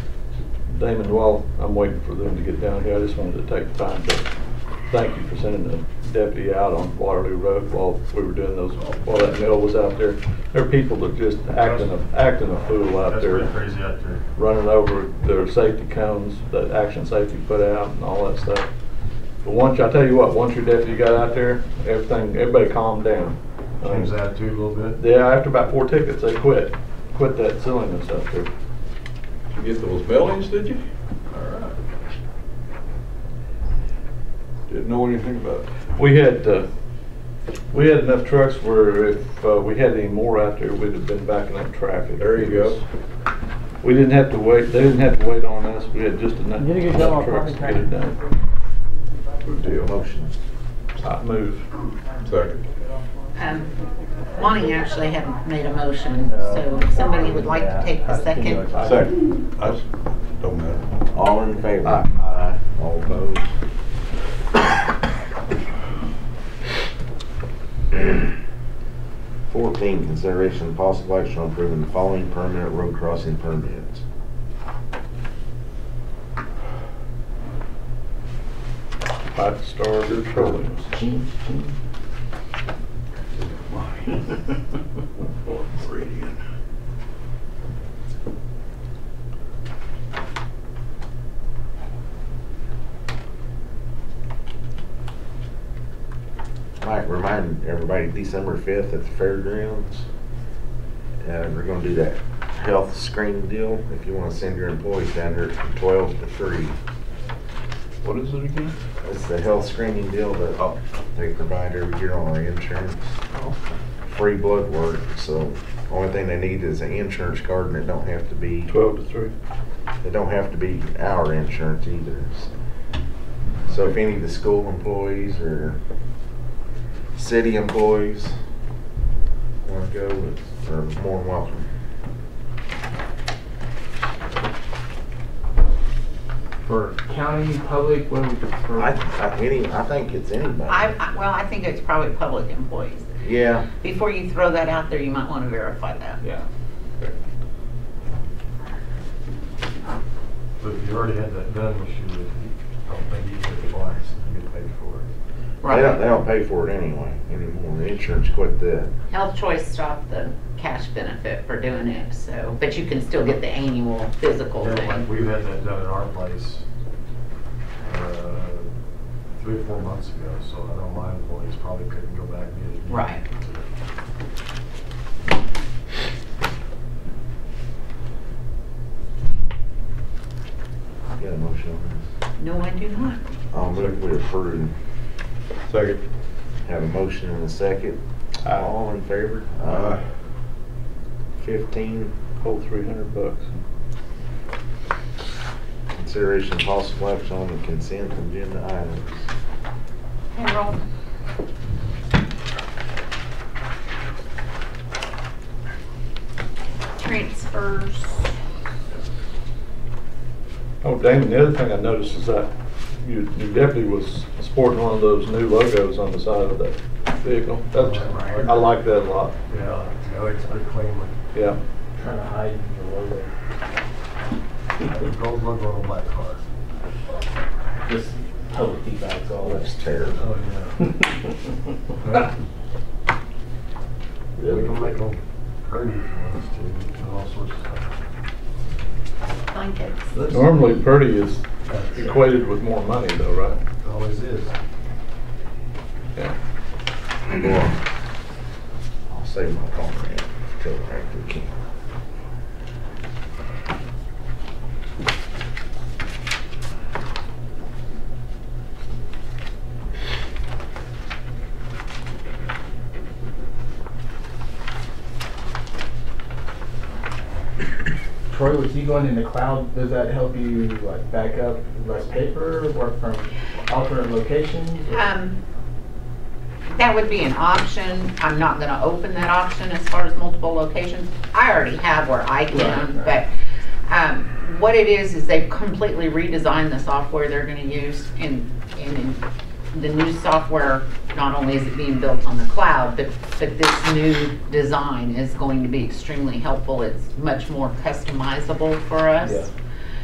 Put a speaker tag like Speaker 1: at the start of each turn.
Speaker 1: Damon, while I'm waiting for them to get down here, I just wanted to take the time to thank you for sending the deputy out on Waterloo Road while we were doing those, while that mill was out there. There are people that just acting, a acting a fool out
Speaker 2: That's
Speaker 1: there.
Speaker 2: pretty crazy out there.
Speaker 1: running over their safety cones that Action Safety put out and all that stuff. But once, I tell you what, once your deputy got out there, everything, everybody calmed down.
Speaker 2: Change
Speaker 3: Uh,
Speaker 2: the
Speaker 1: Um,
Speaker 2: attitude a little bit.
Speaker 1: Yeah, after about four tickets, they quit, quit that silliness up there.
Speaker 4: You get those bellies, did you?
Speaker 2: All right.
Speaker 4: Didn't know anything about it.
Speaker 1: We had, uh, we had enough trucks where if uh, we had any more out there, we'd have been backing up traffic.
Speaker 4: There you go.
Speaker 1: We didn't have to wait, they didn't have to wait on us, we had just enough
Speaker 5: You did a good job
Speaker 1: enough trucks
Speaker 5: on
Speaker 1: to get it done.
Speaker 4: Good deal. Motion.
Speaker 1: I move.
Speaker 4: Second.
Speaker 6: Um, Lonnie actually hadn't made a motion, so if somebody would like to take the second.
Speaker 4: Second. I s- don't matter.
Speaker 3: All in favor?
Speaker 1: Aye.
Speaker 3: All opposed? Fourteen, consideration and possible action on approving the following permanent road crossing permits.
Speaker 1: Five Star Petroleum.
Speaker 4: Meridian.
Speaker 3: Mike, remind everybody, December fifth at the fairgrounds, uh, we're gonna do that health screen deal. If you wanna send your employees down here from twelve to three,
Speaker 1: What is it again?
Speaker 3: it's the health screening deal that they provide every year on our insurance. Free blood work, so only thing they need is an insurance card and it don't have to be,
Speaker 1: Twelve to three.
Speaker 3: it don't have to be our insurance either. so. So if any of the school employees or city employees wanna go, they're more than welcome.
Speaker 7: For county, public, what do we prefer?
Speaker 3: I, I, any, I think it's anybody.
Speaker 6: I, I- well, I think it's probably public employees.
Speaker 3: Yeah,
Speaker 6: Before you throw that out there, you might want to verify that.
Speaker 7: Yeah.
Speaker 2: But if you already had that done, which you would, I don't think you could twice, you get paid for it.
Speaker 3: they don't, they don't
Speaker 6: Right.
Speaker 3: pay for it anyway, anymore. The insurance quit that.
Speaker 6: Health Choice stopped the cash benefit for doing it, so, but you can still get the annual physical
Speaker 2: Yeah, like,
Speaker 6: thing.
Speaker 2: We've had that done at our place, uh, three or four months ago, so I know my employees probably couldn't go back and get it.
Speaker 6: Right.
Speaker 3: Got a motion on
Speaker 6: No, I do not.
Speaker 3: this? I'll move we approve.
Speaker 4: Second.
Speaker 3: Have a motion and a second. All in favor?
Speaker 4: Aye.
Speaker 3: Fifteen,
Speaker 1: Whole three hundred bucks.
Speaker 3: consideration of possible action on the consent agenda items.
Speaker 6: Payroll.
Speaker 8: transfers.
Speaker 1: Oh, Damon, the other thing I noticed is that your, your deputy was sporting one of those new logos on the side of that vehicle. That's, I like that a lot,
Speaker 2: Yeah, no, it's pretty clean, like,
Speaker 1: yeah.
Speaker 7: Trying to hide the logo.
Speaker 2: the gold logo on a black car.
Speaker 7: Just public feedback's all.
Speaker 3: Looks terrible.
Speaker 2: Oh, yeah. Yeah. We can make them pretty if you want us to, and all sorts of stuff.
Speaker 6: Blankets.
Speaker 1: Normally, Purdy is
Speaker 2: That's it.
Speaker 1: equated with more money though, right?
Speaker 2: Always is.
Speaker 1: Yeah.
Speaker 3: Go on. I'll save my comment till after the can.
Speaker 7: Troy, with you going in the cloud, does that help you like back up less paper, work from alternate locations? or-
Speaker 6: Um, that would be an option. I'm not gonna open that option as far as multiple locations. I already have where I can,
Speaker 7: Right,
Speaker 6: but,
Speaker 7: right.
Speaker 6: um, what it is, is they've completely redesigned the software they're gonna use and, and in the new software, not only is it being built on the cloud, but, but this new design is going to be extremely helpful. It's much more customizable for us.